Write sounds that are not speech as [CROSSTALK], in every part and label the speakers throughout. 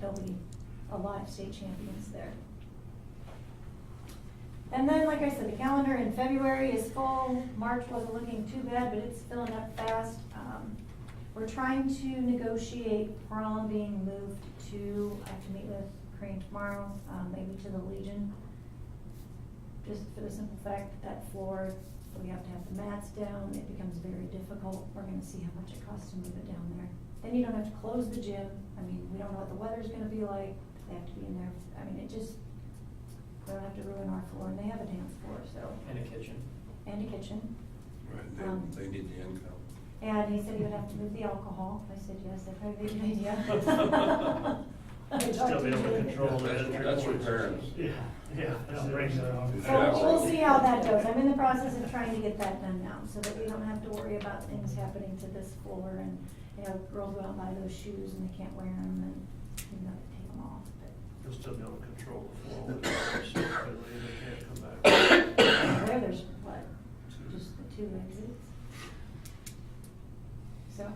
Speaker 1: there'll be a lot of state champions there. And then, like I said, the calendar in February is full. March wasn't looking too bad, but it's filling up fast. Um, We're trying to negotiate prom being moved to, I have to meet with Crane tomorrow, um, maybe to the Legion. Just for the simple fact that that floor, we have to have the mats down, it becomes very difficult. We're gonna see how much it costs to move it down there. Then you don't have to close the gym. I mean, we don't know what the weather's gonna be like. They have to be in there. I mean, it just, we don't have to ruin our floor, and they have a dance floor, so,
Speaker 2: And a kitchen.
Speaker 1: and a kitchen. Um,
Speaker 3: Right, they, they need the income.
Speaker 1: And he said he would have to move the alcohol. I said, yes, that'd probably be a good [LAUGHS] idea. I talked
Speaker 4: Still be
Speaker 1: to
Speaker 4: able to
Speaker 1: him.
Speaker 4: control
Speaker 3: That's-
Speaker 4: it.
Speaker 3: that's what parents-
Speaker 4: Yeah, yeah, that brings it up.
Speaker 1: So we'll see how that goes. I'm in the process of trying to get that done now, so that we don't have to worry about things happening to this floor and, you know, girls go out and buy those shoes and they can't wear them and, you know, they take them off, but
Speaker 4: You'll still be able to control the flow. of it, so They can't come back. [COUGHS]
Speaker 1: where there's, what, just the two exits? So,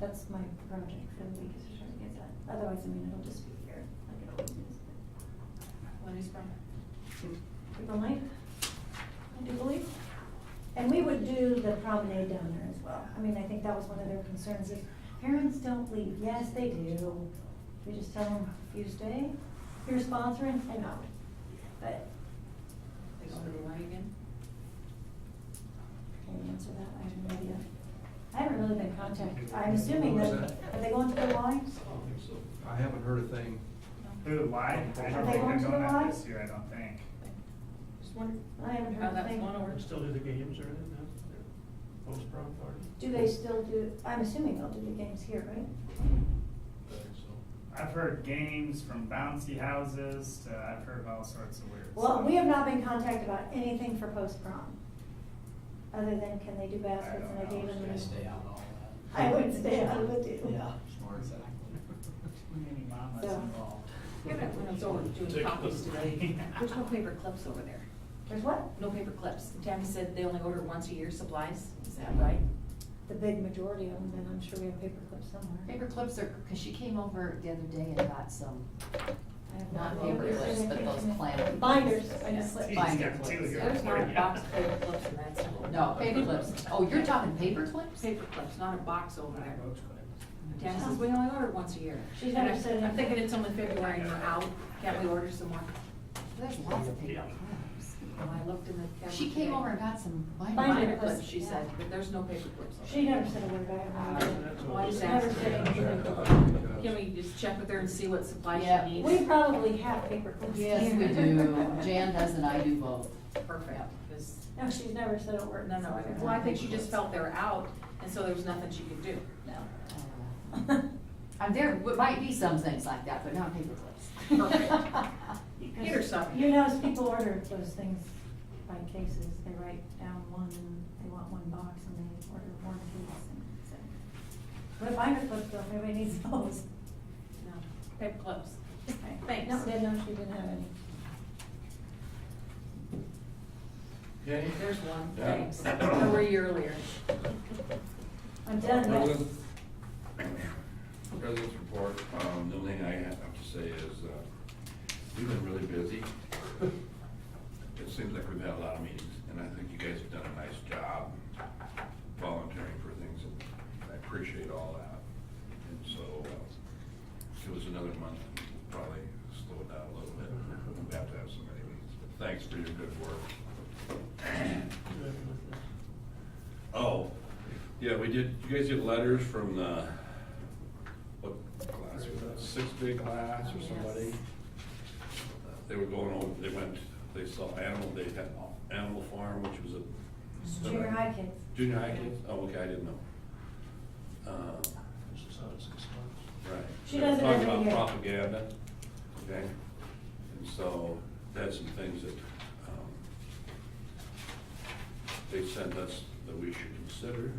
Speaker 1: that's my project for the week, is to try to get that. Otherwise, I mean, it'll just be here, like it always is,
Speaker 5: When is from?
Speaker 1: but April ninth, I do believe. And we would do the promenade down there as well. I mean, I think that was one of their concerns, is parents don't leave. Yes, they do. We just tell them, you stay, you're sponsoring, and out. But,
Speaker 5: They go to the line again?
Speaker 1: can you answer that? I have no idea. I haven't really been contacted. I'm assuming that, are they going to the line?
Speaker 3: I haven't heard a thing.
Speaker 5: No.
Speaker 6: Who, why? I
Speaker 1: Are
Speaker 6: don't
Speaker 1: they
Speaker 6: think
Speaker 1: going
Speaker 6: they're
Speaker 1: to the
Speaker 6: going
Speaker 1: Y?
Speaker 6: out this year, I don't think.
Speaker 5: Just wondering.
Speaker 1: I haven't heard
Speaker 5: Oh,
Speaker 1: a
Speaker 5: that's
Speaker 1: thing.
Speaker 5: one over.
Speaker 4: Still do the games or anything now? Post prom party?
Speaker 1: Do they still do, I'm assuming they'll do the games here, right?
Speaker 6: I've heard games from bouncy houses to, I've heard all sorts of weird.
Speaker 1: Well,
Speaker 6: stuff.
Speaker 1: we have not been contacted about anything for post prom, other than can they do baskets and I gave them.
Speaker 2: I stay out all that.
Speaker 1: I would stay out of it too.
Speaker 2: Yeah, more exactly.
Speaker 6: Too many mamas
Speaker 1: So-
Speaker 6: involved.
Speaker 5: You're gonna, when it's over, doing copies today. There's no paper clips over there.
Speaker 1: There's what?
Speaker 5: No paper clips. Tammy said they only order once a year supplies. Is that right?
Speaker 1: The big majority of them, and I'm sure we have paper clips somewhere.
Speaker 7: Paper clips are, because she came over the other day and got some,
Speaker 1: I have
Speaker 7: not
Speaker 1: no idea.
Speaker 7: paper clips, but those clam.
Speaker 1: Binders, I
Speaker 7: Yeah.
Speaker 1: just slipped.
Speaker 6: Jeez, you
Speaker 7: Binder
Speaker 6: got two
Speaker 7: clips.
Speaker 6: here. [LAUGHS]
Speaker 5: There's not a box of paper clips in that store.
Speaker 7: No, paper clips. [LAUGHS] Oh, you're talking paper clips?
Speaker 5: Paper clips, not a box over there. Tammy says we only order once a year.
Speaker 1: She's
Speaker 5: And
Speaker 1: never
Speaker 5: I'm-
Speaker 1: said
Speaker 5: I'm thinking
Speaker 1: anything.
Speaker 5: it's only February and we're out. Can't we order some more?
Speaker 7: There's lots of paper clips. Oh,
Speaker 5: Well, I looked in the. cabinet
Speaker 7: She came
Speaker 5: today.
Speaker 7: over and got some
Speaker 1: Binder
Speaker 5: Binder
Speaker 7: binder.
Speaker 1: clips,
Speaker 5: clips, she
Speaker 1: yeah.
Speaker 5: said, but there's no paper clips over there.
Speaker 1: She never said a word about it.
Speaker 4: That's
Speaker 5: Why
Speaker 4: all.
Speaker 5: is
Speaker 1: Never
Speaker 5: that?
Speaker 1: said anything.
Speaker 5: Can we just check with her and see what supplies
Speaker 7: Yeah.
Speaker 5: she needs?
Speaker 1: We probably have paper clips here.
Speaker 7: Yes, we do. Jan does and I do both. [LAUGHS]
Speaker 5: Perfect, 'cause-
Speaker 1: No, she's never said a word.
Speaker 5: no, no, I
Speaker 1: don't.
Speaker 5: well, I think she just felt they're out, and so there was nothing she could do.
Speaker 7: Uh, I'm there, w- might be some things like that, but not paper clips. [LAUGHS]
Speaker 1: [LAUGHS]
Speaker 5: Perfect. Get her something.
Speaker 1: You notice people order those things by cases, they write down one, they want one box and they order one case and so. But binder clips though, everybody needs those.
Speaker 5: No, paper clips.
Speaker 1: Okay.
Speaker 5: Thanks.
Speaker 1: No, they know she didn't have any.
Speaker 3: Jenny?
Speaker 5: There's one,
Speaker 3: Yeah.
Speaker 5: thanks. Where were you earlier?
Speaker 1: I'm done, yes.
Speaker 3: President's- President's report, um, the only thing I have to say is, uh, we've been really busy. It seems like we've had a lot of meetings, and I think you guys have done a nice job volunteering for things, and I appreciate all that. And so, uh, give us another month, we'll probably slow it down a little bit, we have to have some meetings, but thanks for your good work. Oh, yeah, we did, you guys get letters from the, what class was that, sixth grade class or somebody?
Speaker 5: Yes.
Speaker 3: They were going over, they went, they saw animal, they had Animal Farm, which was a.
Speaker 1: Junior high kids.
Speaker 3: Junior high kids, oh, okay, I didn't know. Uh,
Speaker 4: Six out of six months.
Speaker 3: Right.
Speaker 1: She
Speaker 3: They were
Speaker 1: does it every
Speaker 3: Talking
Speaker 1: year.
Speaker 3: about propaganda, okay? And so that's some things that um, they sent us that we should consider.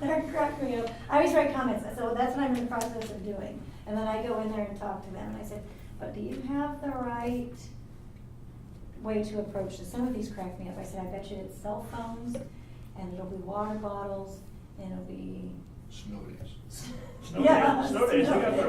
Speaker 1: That cracked me up. I always write comments, so that's what I'm in the process of doing. And then I go in there and talk to them, and I said, but do you have the right way to approach this? Some of these crack me up. I said, I bet you it's cell phones, and it'll be water bottles, and it'll be
Speaker 3: Snow days.
Speaker 1: [LAUGHS]
Speaker 4: Snow
Speaker 1: Yeah,
Speaker 4: days, snow days, we got
Speaker 1: snow